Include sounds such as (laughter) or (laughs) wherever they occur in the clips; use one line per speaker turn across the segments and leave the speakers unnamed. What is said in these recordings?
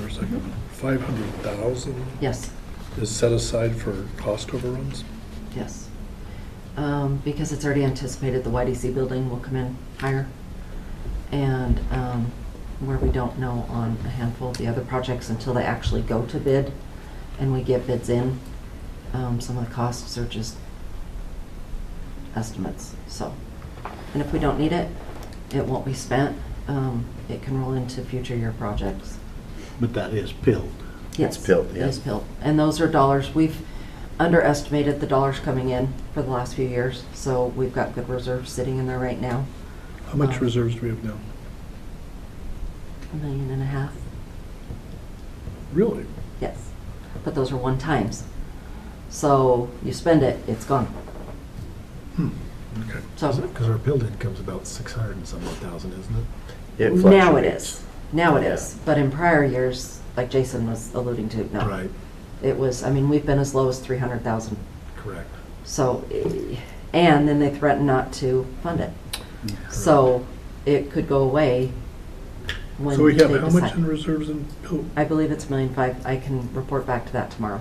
second. Five hundred thousand
Yes,
is set aside for cost overruns?
yes. Um, Because it's already anticipated the YDC building will come in higher. And um, where we don't know on a handful of the other projects until they actually go to bid and we get bids in, um, some of the costs are just estimates, so. And if we don't need it, it won't be spent. Um, It can roll into future year projects.
But that is pilled.
Yes.
PILT,
It
yeah.
is PILT. And those are dollars, we've underestimated the dollars coming in for the last few years, so we've got good reserves sitting in there right now,
How much
Um,
reserves do we have now?
a million and a half,
Really?
yes. But those are one times. So you spend it, it's gone.
Okay.
So
Because our build income's about six hundred and some odd thousand, isn't it?
It
now it
fluctuates.
is, now it
Yeah.
is. But in prior years, like Jason was alluding to, no.
Right,
It was, I mean, we've been as low as three hundred thousand.
correct.
So, eh, and then they threaten not to fund it. So it could go away when
So we
they
have how much in
decide.
reserves in Pilt?
I believe it's million five. I can report back to that tomorrow.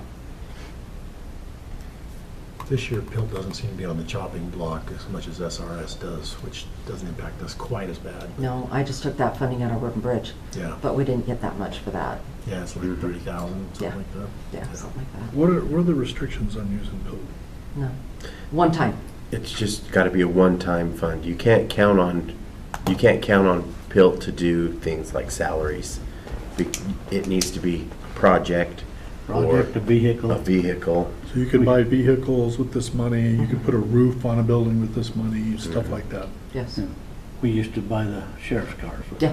This year, Pilt doesn't seem to be on the chopping block as much as SRS does, which doesn't impact us quite as bad.
No, I just took that funding out of Roden Bridge,
Yeah,
but we didn't get that much for that.
yeah, it's like
Mhm.
thirty thousand,
Yeah.
something like that.
Yeah, something like that.
What are, what are the restrictions on using Pilt?
No. One time.
It's just got to be a one-time fund. You can't count on, you can't count on PILT to do things like salaries. Be- It needs to be project or
Project to
a
vehicle.
vehicle.
So you could buy vehicles with this money, you
Uh-huh.
could put a roof on a building with this money, stuff like that.
Yes.
Yeah. We used to buy the sheriff's cars with
Yeah.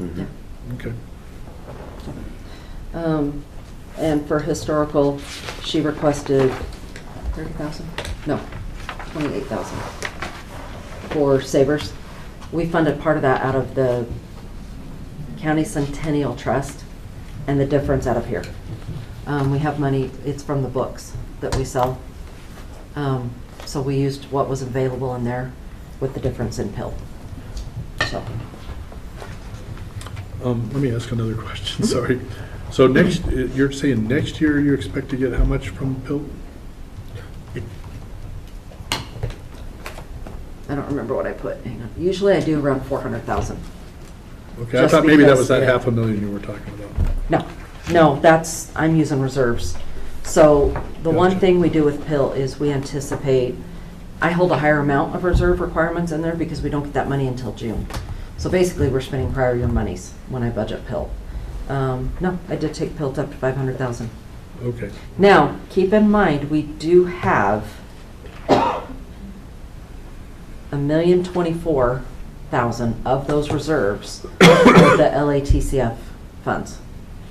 it.
Mhm.
Okay.
Um, and for historical, she requested thirty thousand? No, twenty-eight thousand for Savers. We funded part of that out of the County Centennial Trust and the difference out of here. Um, we have money, it's from the books that we sell. Um, so we used what was available in there with the difference in pill. So,
Um, let me ask another (laughs)
Mhm.
question, sorry. So next, uh, you're saying next year you expect to get how much from Pilt?
I don't remember what I put, hang on. Usually I do around four hundred thousand.
Okay, I
Just
thought maybe that
because,
was that
yeah.
half a million you were talking about.
No, no, that's, I'm using reserves. So the one
Gotcha.
thing we do with pill is we anticipate, I hold a higher amount of reserve requirements in there because we don't get that money until June. So basically, we're spending prior year monies when I budget pill. Um, No, I did take pill up to 500,000.
Okay.
Now, keep in mind, we do have a million twenty-four thousand of those reserves of the LATCF funds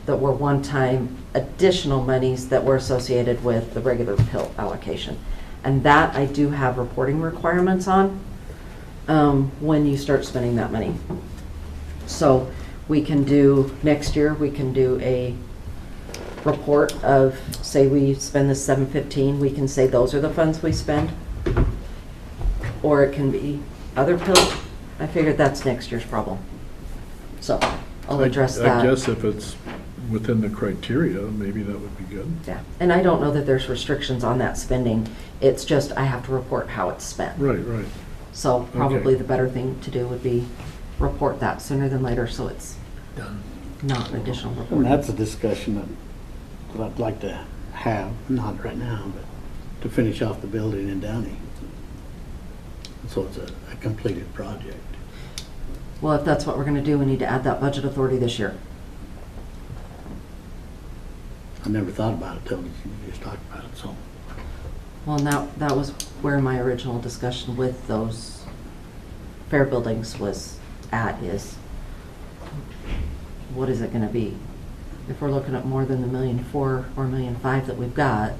that were one-time additional monies that were associated with the regular pill allocation. And that I do have reporting requirements on, um, when you start spending that money. So we can do, next year, we can do a report of, say we spend the seven fifteen, we can say those are the funds we spend. Or it can be other pill. I figured that's next year's problem. So I'll
I-
address
I
that.
guess if it's within the criteria, maybe that would be good.
Yeah, and I don't know that there's restrictions on that spending. It's just I have to report how it's spent.
Right, right.
So probably
Okay.
the better thing to do would be report that sooner than later, so it's
Done.
not an additional report.
And that's a discussion that, that I'd like to have, not right now, but to finish off the building in Downey. So it's a, a completed project.
Well, if that's what we're gonna do, we need to add that budget authority this year.
I never thought about it till you just talked about it, so.
Well, and that, that was where my original discussion with those fair buildings was at is, what is it gonna be? If we're looking at more than the million four or million five that we've got,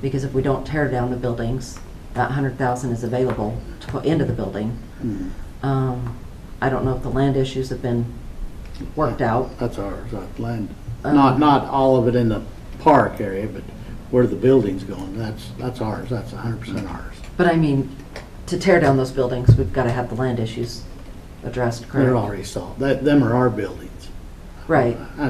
because if we don't tear down the buildings, that hundred thousand is available to put into the building.
mm.
Um, I don't know if the land issues have been worked out.
That's ours, that land.
Um,
Not, not all of it in the park area, but where the building's going, that's, that's ours, that's hundred percent ours.
But I mean, to tear down those buildings, we've gotta have the land issues addressed, correct?
They're already solved, that, them are our buildings.
Right.
I